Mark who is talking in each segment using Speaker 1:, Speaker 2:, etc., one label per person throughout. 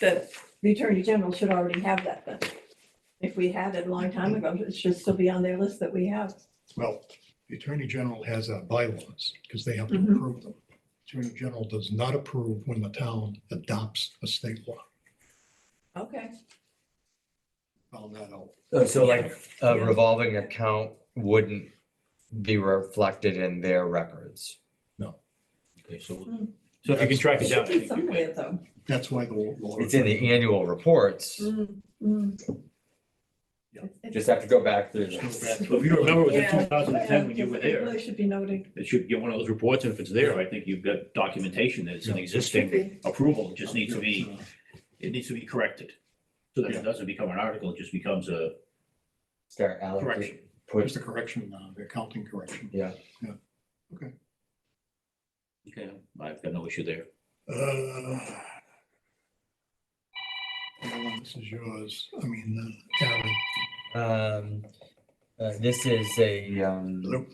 Speaker 1: that the Attorney General should already have that then. If we had it a long time ago, it should still be on their list that we have.
Speaker 2: Well, the Attorney General has uh, bylaws because they have to
Speaker 1: Mhm.
Speaker 2: approve them. Attorney General does not approve when the town adopts a state law.
Speaker 1: Okay.
Speaker 2: Found that out.
Speaker 3: Oh, So like a
Speaker 1: Yeah.
Speaker 3: revolving account wouldn't be reflected in their records.
Speaker 4: Okay, so,
Speaker 1: Hmm.
Speaker 4: so if you can track
Speaker 1: It
Speaker 4: it down.
Speaker 1: should be
Speaker 4: I think you
Speaker 1: somewhere
Speaker 4: can.
Speaker 1: though.
Speaker 2: That's why the law.
Speaker 3: It's in the annual reports.
Speaker 1: Mm,
Speaker 4: Mm-hmm.
Speaker 1: mm. It's-
Speaker 2: Yeah.
Speaker 1: it's-
Speaker 3: Mm-hmm. Just have to go back through.
Speaker 2: Go
Speaker 3: this.
Speaker 2: back.
Speaker 4: So If you remember, it was in
Speaker 1: Yeah.
Speaker 4: two thousand and ten when you
Speaker 1: Yeah,
Speaker 4: were
Speaker 1: it
Speaker 4: there,
Speaker 1: Really should be noted.
Speaker 4: it should get one of those reports, and if it's there, I think you've got documentation that it's an existing approval, it just needs to be,
Speaker 2: uh,
Speaker 4: it needs to be corrected. So that
Speaker 2: Yeah.
Speaker 4: it doesn't become an article, it just becomes a
Speaker 3: Start allocating,
Speaker 4: correction.
Speaker 3: put
Speaker 2: Just a correction, uh, the accounting correction.
Speaker 4: Okay, I've got no issue there.
Speaker 2: Uh, well, This is yours. I mean, uh, Aaron,
Speaker 3: Um, uh, this is a, um,
Speaker 2: Nope.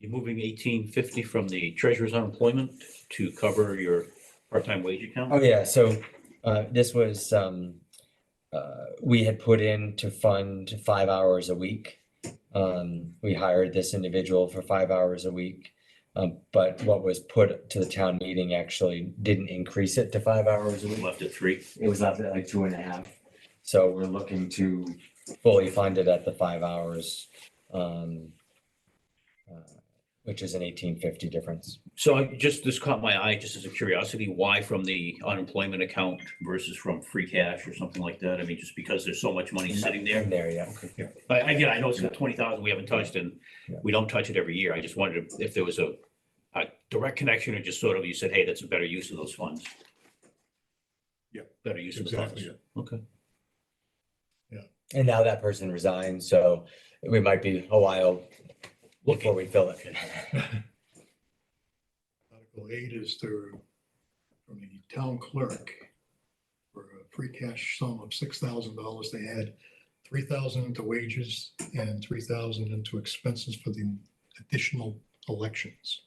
Speaker 4: You're moving eighteen fifty from the treasurer's unemployment to cover your part-time wage
Speaker 3: oh
Speaker 4: account?
Speaker 3: yeah, so, uh, this was, um, uh, we had put in to fund five hours a week. Um, we hired this individual for five hours a week. Um, but what was put to the town meeting actually didn't increase it to five hours a week.
Speaker 4: Left at three.
Speaker 3: It was up at like two and a half. So we're looking to fully fund it at the five hours. Um, uh, which is an eighteen fifty difference.
Speaker 4: So I just, this caught my eye, just as a curiosity, why from the unemployment account versus from free cash or something like that? I mean, just because there's so much money sitting there.
Speaker 3: In there, yeah.
Speaker 4: I, I, yeah, I know it's got twenty thousand we haven't touched and
Speaker 3: Yeah.
Speaker 4: we don't touch it every year. I just wondered if there was a, a direct connection or just sort of, you said, hey, that's a better use of those funds.
Speaker 2: Yeah.
Speaker 4: Better use of the
Speaker 2: exactly.
Speaker 4: funds.
Speaker 2: it.
Speaker 4: Okay.
Speaker 3: And now that person resigned, so we might be a while before
Speaker 4: Looking,
Speaker 3: we fill it.
Speaker 2: Article eight is to, from the town clerk for a free cash sum of six thousand dollars. They had three thousand into wages and three thousand into expenses for the additional elections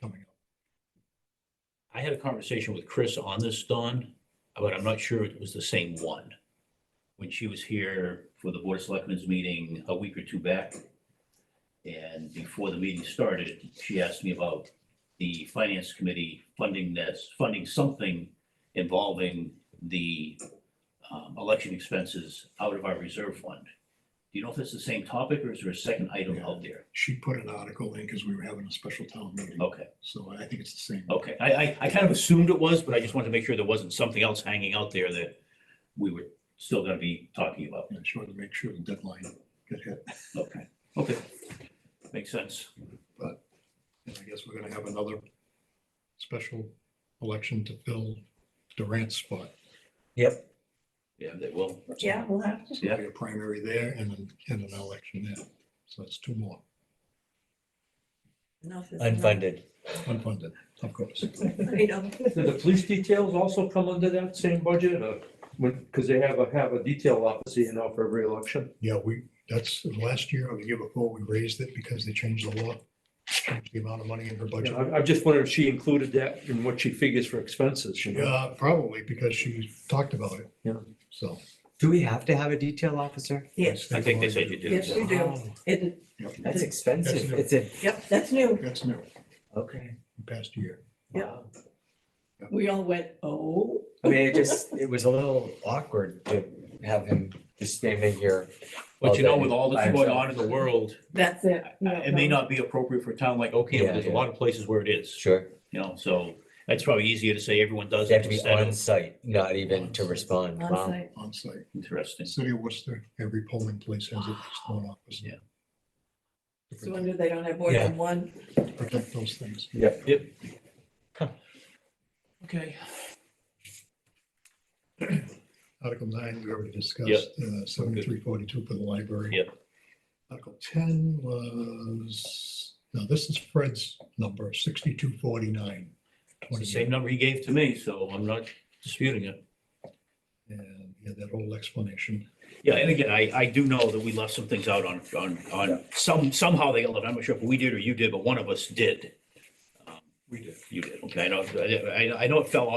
Speaker 2: coming up.
Speaker 4: I had a conversation with Chris on this, Dawn, but I'm not sure it was the same one. When she was here for the Board of Selectmen's meeting a week or two back. And before the meeting started, she asked me about the Finance Committee funding this, funding something involving the um, election expenses out of our reserve fund. Do you know if it's the same topic or is there a second item out there?
Speaker 2: She put an article in because we were having a special town meeting,
Speaker 4: Okay.
Speaker 2: so I think it's the same.
Speaker 4: Okay, I, I, I kind of assumed it was, but I just wanted to make sure there wasn't something else hanging out there that we were still gonna be talking about.
Speaker 2: I just wanted to make sure the deadline got hit.
Speaker 4: Okay, okay. Makes sense.
Speaker 2: And I guess we're gonna have another special election to fill Durant's spot.
Speaker 3: Yep.
Speaker 4: Yeah, they will.
Speaker 1: Yeah, we'll have to.
Speaker 2: There'll be a primary there and an, and an election there. So that's two more
Speaker 1: Enough is enough.
Speaker 3: Unfunded.
Speaker 2: unfunded, of course.
Speaker 1: I know.
Speaker 5: Do the police details also come under that same budget or, because they have a, have a detail officer, you know, for every election?
Speaker 2: Yeah, we, that's last year or the year before, we raised it because they changed the law. changed The amount of money in her
Speaker 5: You
Speaker 2: budget.
Speaker 5: know, I, I just wondered if she included that in what she figures for expenses, you know?
Speaker 2: Yeah, Uh, probably because she talked about it.
Speaker 5: Yeah.
Speaker 2: So.
Speaker 3: Do we have to have a detail officer?
Speaker 1: Yes,
Speaker 4: I think they said you did.
Speaker 1: yes, we do.
Speaker 3: Wow,
Speaker 1: It,
Speaker 2: Yep,
Speaker 3: That's
Speaker 2: That's
Speaker 3: expensive.
Speaker 2: new.
Speaker 3: It's a,
Speaker 1: yep, that's new.
Speaker 2: That's new,
Speaker 3: okay.
Speaker 2: past year.
Speaker 1: Yeah.
Speaker 3: Wow.
Speaker 1: We all went, oh,
Speaker 3: I mean, it just, it was a little awkward to have him just standing here.
Speaker 4: But you know, with
Speaker 3: day
Speaker 4: all
Speaker 3: by
Speaker 4: that's going
Speaker 3: himself.
Speaker 4: on in the world,
Speaker 1: that's it. No,
Speaker 4: it may
Speaker 1: no.
Speaker 4: not be appropriate for a town like Ocam,
Speaker 3: Yeah,
Speaker 4: but there's a
Speaker 3: yeah.
Speaker 4: lot of places where it is,
Speaker 3: Sure.
Speaker 4: you know, so it's probably easier to say everyone does.
Speaker 3: They
Speaker 4: it
Speaker 3: have to be
Speaker 4: instead of-
Speaker 3: on site, not even to
Speaker 2: On-site.
Speaker 3: respond. Wow.
Speaker 1: On-site.
Speaker 2: On site.
Speaker 4: Interesting.
Speaker 2: City of Worcester, every polling place has its own office.
Speaker 4: Yeah.
Speaker 1: It's a wonder they don't have more than one.
Speaker 2: To Protect those things.
Speaker 4: Okay.
Speaker 2: Article nine, we already
Speaker 4: Yep.
Speaker 2: discussed, uh, seventy-three forty-two for the library.
Speaker 4: Yep.
Speaker 2: Article ten was, now this is Fred's number, sixty-two forty-nine.
Speaker 4: It's the same number he gave to me, so I'm not disputing it.
Speaker 2: And yeah, that whole explanation.
Speaker 4: Yeah, and again, I, I do know that we left some things out on, on, on, some, somehow they got left. I'm not sure if we did or you did, but one of us did. Um,
Speaker 5: We did.
Speaker 4: You did, okay, I know, I, I know it fell off.